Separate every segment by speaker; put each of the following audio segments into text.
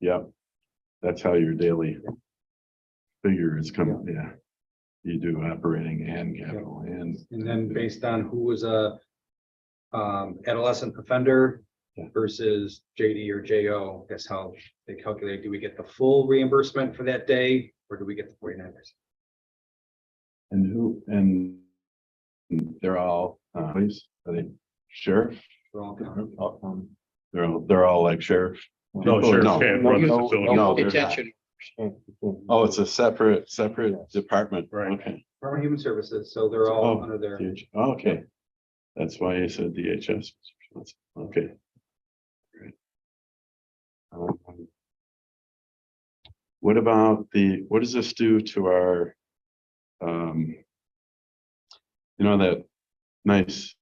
Speaker 1: Yeah, that's how your daily figure is coming, yeah. You do operating and capital and,
Speaker 2: And then based on who was a um, adolescent offender
Speaker 1: Yeah.
Speaker 2: versus JD or JO, that's how they calculate, do we get the full reimbursement for that day? Or do we get the forty-nine percent?
Speaker 1: and who, and they're all, uh, police, are they sheriff? Um, They're, all they're all like sheriff.
Speaker 3: No,
Speaker 1: people?
Speaker 3: sheriff can't run the
Speaker 1: no,
Speaker 3: facility.
Speaker 1: no, they're-
Speaker 4: Detention.
Speaker 1: Oh, it's a separate, separate department.
Speaker 3: Right.
Speaker 1: Okay.
Speaker 2: Department of Human Services, so they're all
Speaker 1: Oh,
Speaker 2: under their,
Speaker 1: DH Okay. That's why you said DHS. Okay. Great. Um, What about the, what does this do to our? Um. You know, that nice,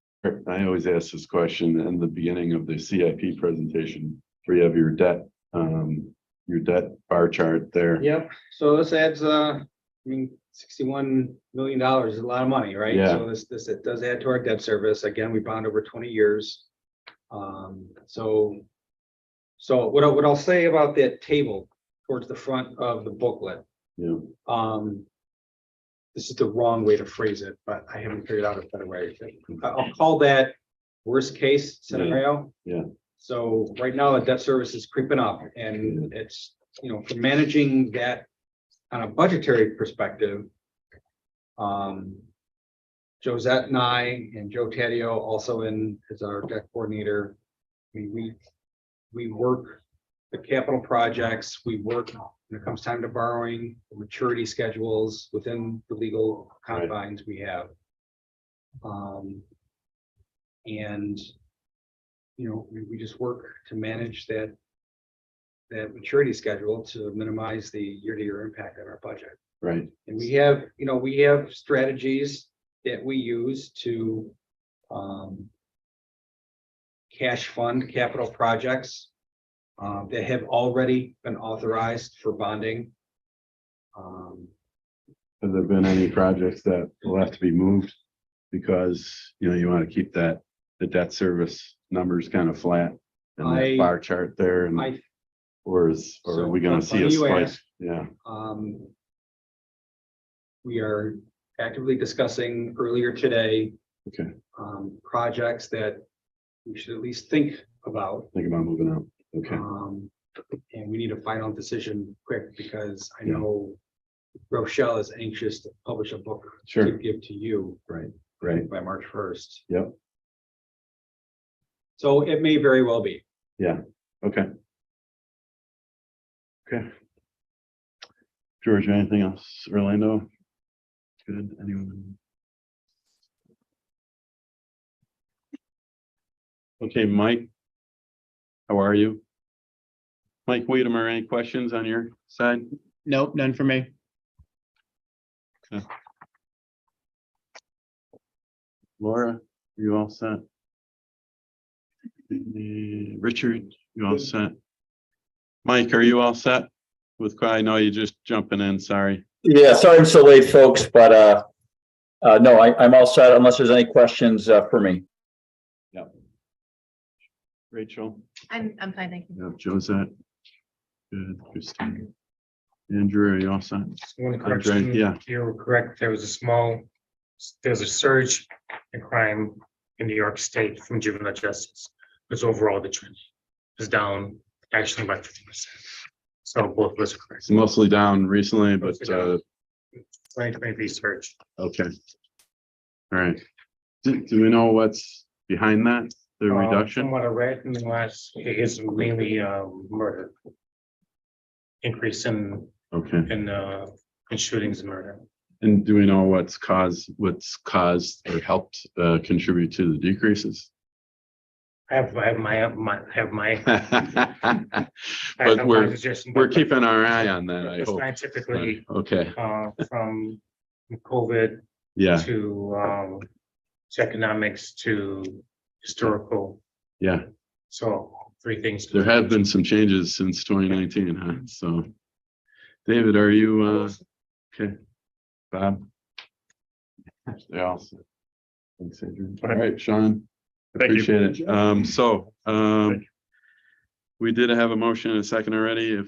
Speaker 1: I always ask this question in the beginning of the CIP presentation, where you have your debt, um, your debt bar chart there.
Speaker 2: yep, so this adds, uh, I mean, sixty-one million dollars is a lot of money, right?
Speaker 1: Yeah.
Speaker 2: So this, this, it does add to our debt service, again, we bond over twenty years. Um, so. So what I, what I'll say about that table towards the front of the booklet,
Speaker 1: Yeah,
Speaker 2: um. This is the wrong way to phrase it, but I haven't figured out a better way. I- I'll call that worst case scenario.
Speaker 1: Yeah.
Speaker 2: So right now, the debt service is creeping up and it's, you know, for managing that on a budgetary perspective. Um. Josette and I and Joe Taddeo also in as our debt coordinator. We, we, we work the capital projects, we work when it comes time to borrowing, the maturity schedules within the legal
Speaker 1: Right.
Speaker 2: confines we have. Um. And. You know, we, we just work to manage that. That maturity schedule to minimize the year-to-year impact on our budget.
Speaker 1: right,
Speaker 2: And we have, you know, we have strategies that we use to um. Cash fund capital projects. uh, that have already been authorized for bonding. Um,
Speaker 1: Have there been any projects that will have to be moved? Because, you know, you want to keep that, the debt service numbers kind of flat. And
Speaker 2: I-
Speaker 1: that bar chart there and,
Speaker 2: I,
Speaker 1: or is, or are we gonna
Speaker 2: So,
Speaker 1: see a
Speaker 2: you
Speaker 1: spike?
Speaker 2: asked.
Speaker 1: Yeah,
Speaker 2: um. We are actively discussing earlier today.
Speaker 1: Okay.
Speaker 2: Um, projects that we should at least think about.
Speaker 1: think about moving out. Okay,
Speaker 2: Um, and we need a final decision quick because I
Speaker 1: Yeah.
Speaker 2: know Rochelle is anxious to publish a book to
Speaker 1: sure,
Speaker 2: give to you
Speaker 1: right,
Speaker 2: by March first.
Speaker 1: Yep.
Speaker 2: So it may very well be.
Speaker 1: okay. Okay. George, anything else? Orlando? Good, anyone? Okay, Mike. How are you? Mike Weedemer, any questions on your side?
Speaker 4: Nope, none for me.
Speaker 1: Laura, you all set? Uh, Richard, you all set? Mike, are you all set? With, I know you're just jumping in, sorry.
Speaker 5: Yeah, sorry I'm so late, folks, but uh, uh, no, I, I'm all set unless there's any questions uh, for me.
Speaker 1: Rachel?
Speaker 6: I'm, I'm fine, thank you.
Speaker 1: Yeah, Josette. Good, Christine. Andrew, are you all set?
Speaker 7: Just One
Speaker 1: Andre,
Speaker 7: correction,
Speaker 1: yeah.
Speaker 7: you were correct, there was a small, there's a surge in crime in New York State from juvenile justice. Because overall, the trend is down actually by fifty percent. So both of us are correct.
Speaker 1: It's mostly down recently, but uh,
Speaker 7: Twenty twenty research,
Speaker 1: okay. All right. Do, do we know what's behind that, the
Speaker 7: Um, From
Speaker 1: reduction?
Speaker 7: what I read in the last, it is mainly um murder. Increase in
Speaker 1: Okay,
Speaker 7: in uh in shootings and murder.
Speaker 1: and do we know what's caused, what's caused or helped uh, contribute to the decreases?
Speaker 7: I have I have my my I have my. I have my
Speaker 1: But we're,
Speaker 7: suggestion,
Speaker 1: we're
Speaker 7: but-
Speaker 1: keeping our eye on that, I
Speaker 7: but
Speaker 1: hope.
Speaker 7: Scientifically,
Speaker 1: Okay,
Speaker 7: uh, from COVID
Speaker 1: yeah,
Speaker 7: to, um, to economics to historical.
Speaker 1: yeah.
Speaker 7: So three things.
Speaker 1: There have been some changes since twenty nineteen, huh? So, David, are you, uh, okay, Bob? They all said- Thanks, Adrian. All right, Sean.
Speaker 3: Thank you.
Speaker 1: Appreciate it. Um, so,
Speaker 3: Thank
Speaker 1: um, we did have a motion and a second already. If